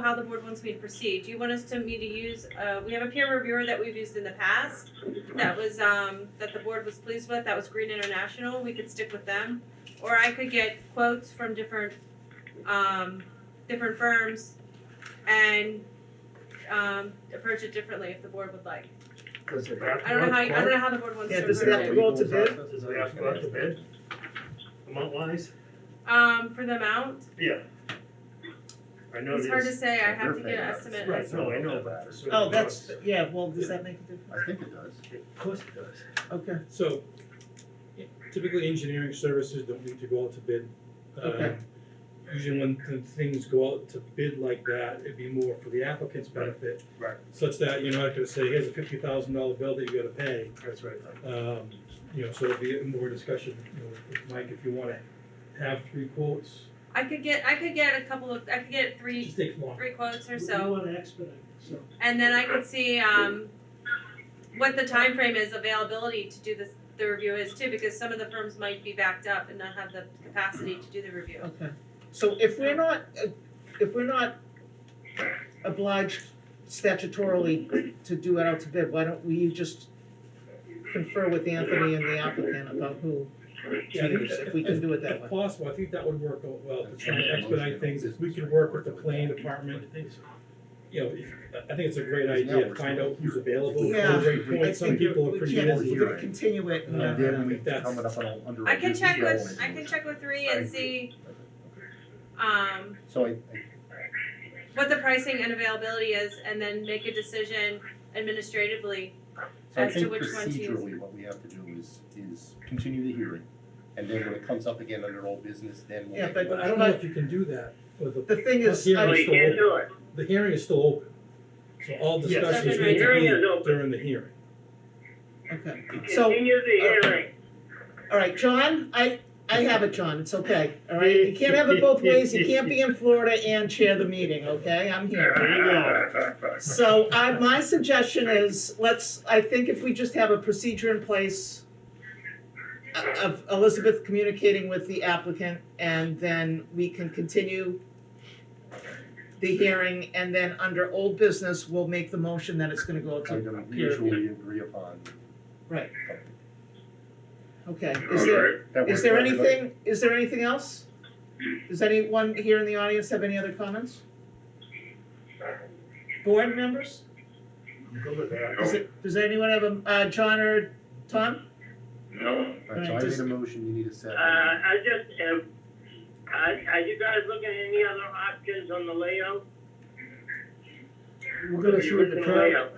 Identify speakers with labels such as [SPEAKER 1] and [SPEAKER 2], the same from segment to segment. [SPEAKER 1] how the board wants me to proceed. Do you want us to me to use, uh, we have a peer reviewer that we've used in the past. That was, um, that the board was pleased with, that was Green International, we could stick with them. Or I could get quotes from different, um, different firms and, um, approach it differently if the board would like.
[SPEAKER 2] Does it
[SPEAKER 1] I don't know how, you- I don't know how the board wants to
[SPEAKER 2] Yeah,
[SPEAKER 1] approach
[SPEAKER 2] does
[SPEAKER 1] it.
[SPEAKER 2] it have to go out to bid?
[SPEAKER 3] Does it have to go out to bid? Amount wise?
[SPEAKER 1] Um, for the amount,
[SPEAKER 3] Yeah. I know
[SPEAKER 1] it's
[SPEAKER 3] it
[SPEAKER 1] hard to
[SPEAKER 3] is.
[SPEAKER 1] say, I
[SPEAKER 2] but
[SPEAKER 1] have
[SPEAKER 2] they're
[SPEAKER 1] to get
[SPEAKER 2] paying
[SPEAKER 1] an
[SPEAKER 2] us.
[SPEAKER 1] estimate.
[SPEAKER 3] Right, no, I know that. for certain
[SPEAKER 4] Oh, that's,
[SPEAKER 3] amounts.
[SPEAKER 4] yeah, well, does that make a difference?
[SPEAKER 2] I think it does.
[SPEAKER 3] Of course it does.
[SPEAKER 4] Okay,
[SPEAKER 5] So typically engineering services don't need to go out to bid. Um,
[SPEAKER 4] Okay.
[SPEAKER 5] Usually when th- things go out to bid like that, it'd be more for the applicant's benefit.
[SPEAKER 3] Right.
[SPEAKER 5] Such that you're not gonna say, here's a fifty thousand dollar bill that you gotta pay.
[SPEAKER 3] That's right.
[SPEAKER 5] Um, you know, so it'd be more discussion, you know, with Mike, if you wanna have three quotes,
[SPEAKER 1] I could get, I could get a couple of, I could get
[SPEAKER 5] it
[SPEAKER 1] three,
[SPEAKER 5] just takes longer.
[SPEAKER 1] three quotes or
[SPEAKER 4] we
[SPEAKER 1] so.
[SPEAKER 4] wanna expedite, so,
[SPEAKER 1] And then I could see um what the time frame is availability to do this, the review is too, because some of the firms might be backed up and not have the capacity to do the review.
[SPEAKER 4] okay. So if we're not, uh, if we're not obliged statutorily to do it out to bid, why don't we just confer with Anthony and the applicant about who,
[SPEAKER 5] Yeah, I think
[SPEAKER 4] if we can do it that
[SPEAKER 5] If
[SPEAKER 4] way?
[SPEAKER 5] possible, I think that would work out well, to try and expedite things, if we could work with the planning department, you know, if- I I think it's a great idea, find out who's available,
[SPEAKER 4] Yeah,
[SPEAKER 5] those rate
[SPEAKER 4] I
[SPEAKER 5] points, some
[SPEAKER 4] think
[SPEAKER 5] people
[SPEAKER 4] we
[SPEAKER 5] are pretty
[SPEAKER 4] can't-
[SPEAKER 5] busy.
[SPEAKER 4] We're gonna continue it, and,
[SPEAKER 2] And then we
[SPEAKER 4] uh,
[SPEAKER 5] that's-
[SPEAKER 2] coming up on a- under.
[SPEAKER 1] I can
[SPEAKER 2] review,
[SPEAKER 1] check
[SPEAKER 2] yeah, I
[SPEAKER 1] with,
[SPEAKER 2] wanna
[SPEAKER 1] I
[SPEAKER 2] do
[SPEAKER 1] can
[SPEAKER 2] it.
[SPEAKER 1] check with three
[SPEAKER 2] I
[SPEAKER 1] and
[SPEAKER 2] agree.
[SPEAKER 1] see um
[SPEAKER 2] So I, I,
[SPEAKER 1] what the pricing and availability is, and then make a decision administratively.
[SPEAKER 2] so I
[SPEAKER 1] As to
[SPEAKER 2] think
[SPEAKER 1] which one to use.
[SPEAKER 2] procedurally, what we have to do is, is continue the hearing. And then when it comes up again under old business, then we'll.
[SPEAKER 4] Yeah,
[SPEAKER 2] make-
[SPEAKER 5] But I don't know if you can do that, but the,
[SPEAKER 4] the thing is,
[SPEAKER 5] Yeah,
[SPEAKER 4] I-
[SPEAKER 5] we
[SPEAKER 6] Well, you can't do it.
[SPEAKER 5] the hearing is still open, so all
[SPEAKER 3] Yes.
[SPEAKER 5] discussions
[SPEAKER 1] Open,
[SPEAKER 5] need to
[SPEAKER 1] right.
[SPEAKER 5] be
[SPEAKER 6] Hearing is open.
[SPEAKER 5] during the hearing.
[SPEAKER 4] okay. So- uh,
[SPEAKER 6] Continue the hearing.
[SPEAKER 4] All right, John, I, I have it, John, it's okay, all right? You can't have it both ways, you can't be in Florida and chair the meeting, okay? I'm here. So I, my suggestion is, let's, I think if we just have a procedure in place uh, of Elizabeth communicating with the applicant, and then we can continue the hearing, and then under old business, we'll make the motion that it's gonna go to,
[SPEAKER 2] Item usually agree upon.
[SPEAKER 4] right,
[SPEAKER 2] That
[SPEAKER 4] okay. Is there,
[SPEAKER 2] works
[SPEAKER 4] Is there
[SPEAKER 2] for everybody?
[SPEAKER 4] anything, is there anything else? Does anyone here in the audience have any other comments? Board members?
[SPEAKER 3] I'm good with that.
[SPEAKER 4] Does it, does anyone have a, uh, John or Tom?
[SPEAKER 6] No.
[SPEAKER 2] All right, so I
[SPEAKER 4] Alright,
[SPEAKER 2] made
[SPEAKER 4] just-
[SPEAKER 2] a motion, you need a
[SPEAKER 6] Uh,
[SPEAKER 2] second.
[SPEAKER 6] I just, uh, are, are you guys looking at any other options on the layout?
[SPEAKER 4] We're
[SPEAKER 6] Are you looking at layout?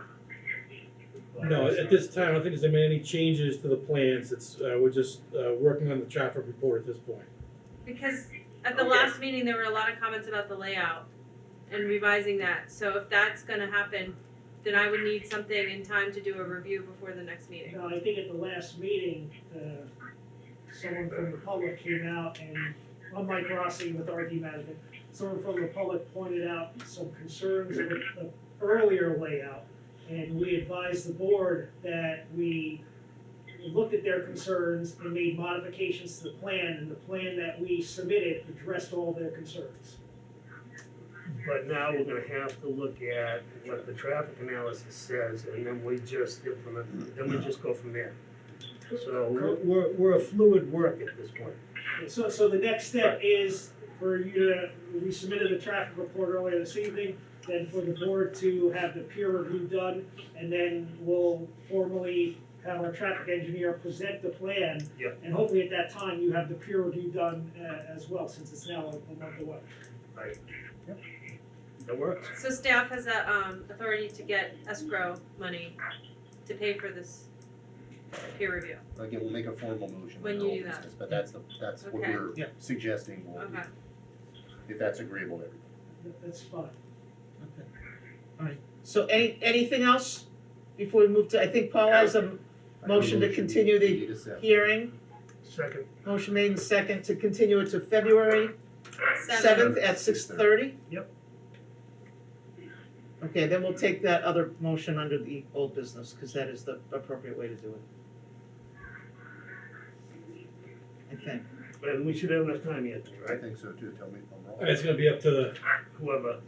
[SPEAKER 5] No, at this time, I don't think there's been any changes to the plans, it's, uh, we're just, uh, working on the traffic report at this point.
[SPEAKER 1] Because at the
[SPEAKER 6] Okay.
[SPEAKER 1] last meeting, there were a lot of comments about the layout and revising that, so if that's gonna happen, then I would need something in time to do a review before the next meeting.
[SPEAKER 7] No, I think at the last meeting, uh, someone from the public came out and, I'm Mike Rossi with RD Management, someone from the public pointed out some concerns with the earlier layout. And we advised the board that we looked at their concerns and made modifications to the plan, and the plan that we submitted addressed all their concerns.
[SPEAKER 3] But now we're gonna have to look at what the traffic analysis says, and then we just implement, then we just go from there. So we're- we're, we're a fluid work at this point.
[SPEAKER 7] So, so the next step is for you to, we submitted the traffic report earlier this evening, then for the board to have the peer review done, and then we'll formally have our traffic engineer present the plan.
[SPEAKER 3] Yep.
[SPEAKER 7] And hopefully at that time, you have the peer review done, uh, as well, since it's now a a month away.
[SPEAKER 3] That works.
[SPEAKER 1] So staff has a um authority to get escrow money to pay for this peer review,
[SPEAKER 2] Again, we'll make a formal motion
[SPEAKER 1] When
[SPEAKER 2] in
[SPEAKER 1] you
[SPEAKER 2] old
[SPEAKER 1] do that.
[SPEAKER 2] business, but that's the, that's what
[SPEAKER 1] Okay.
[SPEAKER 2] we're
[SPEAKER 4] Yeah.
[SPEAKER 2] suggesting, will
[SPEAKER 1] okay.
[SPEAKER 2] if that's agreeable to everybody.
[SPEAKER 7] That- That's fine.
[SPEAKER 4] Okay. All right, so any, anything else before we move to, I think Paul has a
[SPEAKER 2] I
[SPEAKER 4] Motion to
[SPEAKER 2] made a
[SPEAKER 4] continue the
[SPEAKER 2] You need a second.
[SPEAKER 4] hearing,
[SPEAKER 3] Second,
[SPEAKER 4] motion made and second to continue it to February
[SPEAKER 1] Seven,
[SPEAKER 4] seventh at six thirty?
[SPEAKER 3] Yep.
[SPEAKER 4] Okay, then we'll take that other motion under the old business, cause that is the appropriate way to do it. I think,
[SPEAKER 3] and we should have enough time, Anthony,
[SPEAKER 2] I
[SPEAKER 3] right?
[SPEAKER 2] think so too, tell me if I'm wrong.
[SPEAKER 5] All right, it's gonna be up to the
[SPEAKER 3] Whoever